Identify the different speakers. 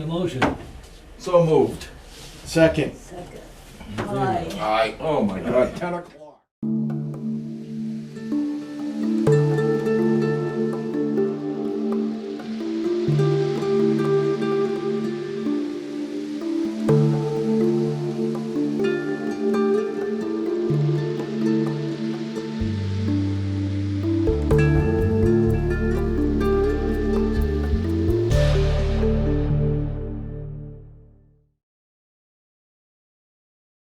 Speaker 1: motion?
Speaker 2: So moved.
Speaker 3: Second.
Speaker 4: Second. Aye.
Speaker 2: Aye. Oh, my God, ten o'clock.